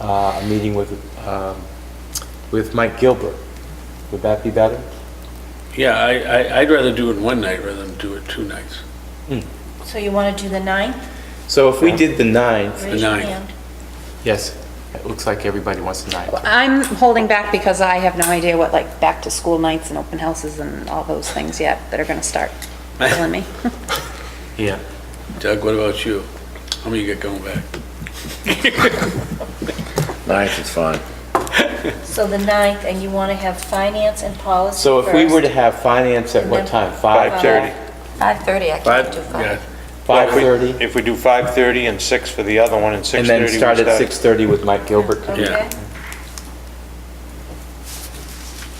uh, a meeting with, um, with Mike Gilbert. Would that be better? Yeah, I, I, I'd rather do it one night rather than do it two nights. So you want to do the 9th? So if we did the 9th, Raise your ninth. hand. yes, it looks like everybody wants the 9th. I'm holding back because I have no idea what, like, back-to-school nights and open houses and all those things yet that are going to start killing me. Yeah. Doug, what about you? How many you got going back? Ninth is fine. So the 9th, and you want to have finance and policy So if we were to first. have finance at what time? 5? 5:30. 5:30, I Five? can't do 5. Yeah, 5:30? If we do 5:30 and 6 for the other one, and 6:30 we And start. then start at 6:30 with Mike Gilbert. Okay. Yeah.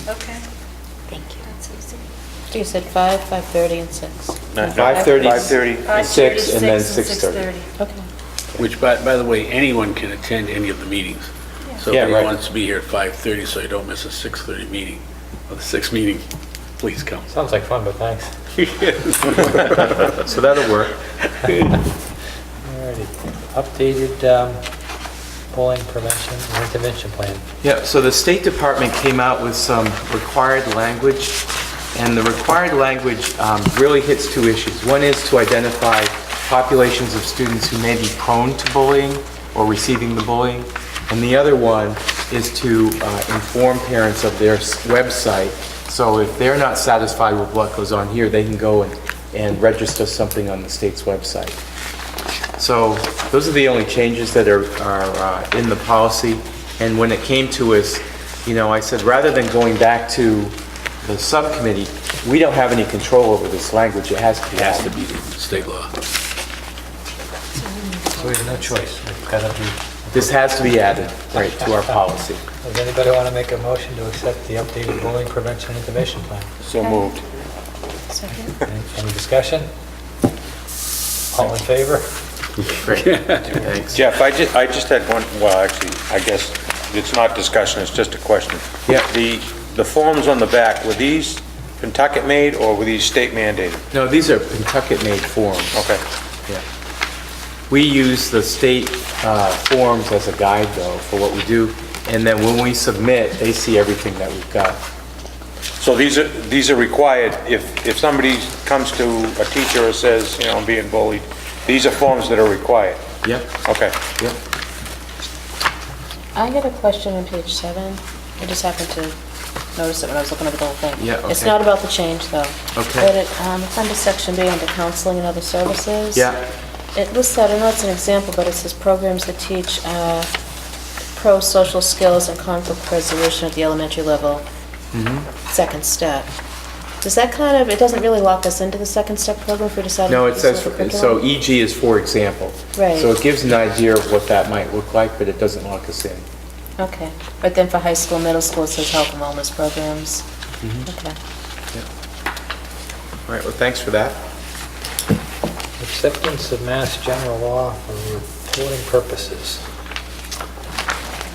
Okay. Thank you. That's easy. You said 5, 5:30, and 6. No, no, 5:30. 5:30. And six, 5:30, and then 6:30. Okay. Which, by, by the way, anyone can attend any of the meetings. So if Yeah, right. anyone wants to be here at 5:30, so you don't miss a 6:30 meeting, or the 6 meeting, please come. Sounds like fun, but thanks. So that'll work. Alrighty, updated um, bullying prevention and intervention plan. Yeah, so the State Department came out with some required language, and the required language um, really hits two issues. One is to identify populations of students who may be prone to bullying or receiving the bullying, and the other one is to uh, inform parents of their s- website, so if they're not satisfied with what goes on here, they can go and and register something on the state's website. So those are the only changes that are, are uh, in the policy. And when it came to us, you know, I said, rather than going back to the subcommittee, we don't have any control over this language. It has to be. It has to be state law. So we have no choice, we've got to be, This has to be added, right, to our policy. does anybody want to make a motion to accept the updated bullying prevention and intervention plan? So moved. Any any discussion? All in favor? Great, thanks. Jeff, I just, I just had one, well, actually, I guess it's not discussion, it's just a question. Yeah. The, the forms on the back, were these Pentucket made or were these state mandated? No, these are Pentucket-made forms. Okay. Yeah. We use the state uh, forms as a guide, though, for what we do. And then when we submit, they see everything that we've got. So these are, these are required, if, if somebody comes to a teacher and says, you know, I'm being bullied, these are forms that are required? Yep, Okay. yep. I got a question on page 7. I just happened to notice it when I was looking over the whole thing. Yeah, It's okay. not about the change, though. Okay. But it, um, it's under section B, under counseling and other services. Yeah. It lists out, I know it's an example, but it says programs that teach uh, pro-social skills and conflict resolution at the elementary level, Mm-hmm. second step. Does that kind of, it doesn't really lock us into the second step program if we decide? No, to it says, do something so curriculum? EG E is for example. Right. So it gives an idea of what that might look like, but it doesn't lock us in. Okay, but then for high school, middle school, it says health and wellness programs? Mm-hmm. Okay. All right, well, thanks for that. Acceptance of mass general law for reporting purposes.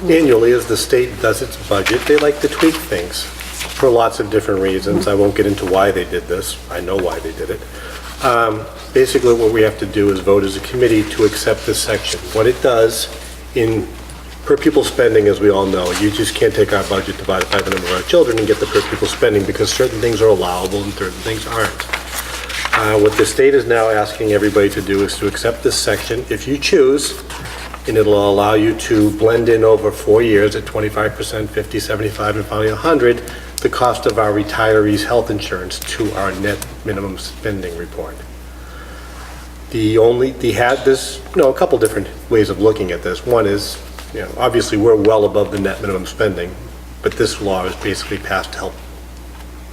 annually, as the state does its budget, they like to tweak things for lots of different reasons. I won't get into why they did this. I know why they did it. Um, Basically, what we have to do is vote as a committee to accept this section. What it does in per pupil spending, as we all know, you just can't take our budget divided by the number of our children and get the per pupil spending because certain things are allowable and certain things aren't. Uh, What the state is now asking everybody to do is to accept this section, if you choose, and it'll allow you to blend in over four years at 25%, 50, 75, and finally 100, the cost of our retirees' health insurance to our net minimum spending report. The only, the had, this, you know, a couple different ways of looking at this. One is, you know, obviously, we're well above the net minimum spending, but this law is basically passed to help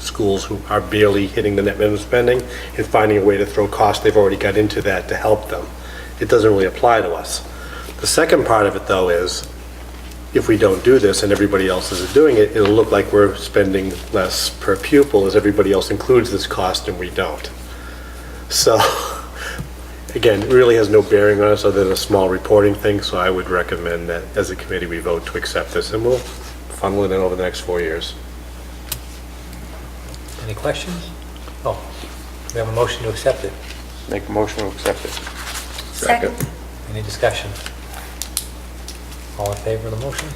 schools who are barely hitting the net minimum spending and finding a way to throw costs they've already got into that to help them. It doesn't really apply to us. The second part of it, though, is if we don't do this and everybody else is doing it, it'll look like we're spending less per pupil as everybody else includes this cost and we don't. So, again, it really has no bearing on us other than a small reporting thing, so I would recommend that as a committee, we vote to accept this and we'll funnel it in over the next four years. Any questions? Oh, we have a motion to accept it. Make a motion to accept it. Second. Any discussion? All in favor of the motion?